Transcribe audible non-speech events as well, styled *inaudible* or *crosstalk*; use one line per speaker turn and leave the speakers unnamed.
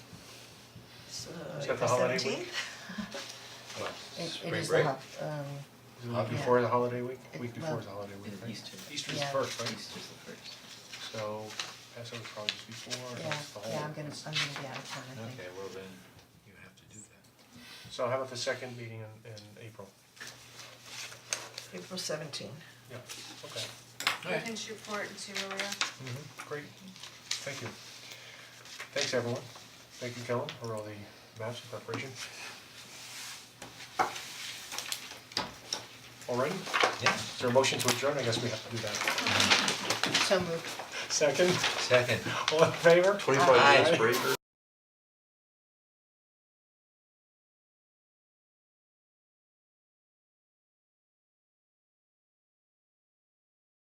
that the
The
holiday week?
seventeenth?
*laughs* Well,
It it
spring
is the
break.
hub, um,
Not Uh, before the holiday week,
It-
week
well,
before is the holiday week, right?
Easter.
Easter's the
Yeah.
first, right?
Easter's the first.
So Passover's probably just before,
yeah,
that's the whole.
yeah, I'm gonna, I'm gonna be out of town, I think.
Okay, well then, you have to do that. So how about the second meeting in in April?
April seventeen.
Yeah, okay.
I can shoot for it and see where we are.
Mm-hmm.
Mhm, great, thank you. Thanks, everyone. Thank you, Kellen, for all the maps and preparation. All right,
Yeah,
is there a motion to adjourn? I guess we have to do that.
So moved.
Second,
second.
all in favor?
Twenty-five
Aye.
minutes break or?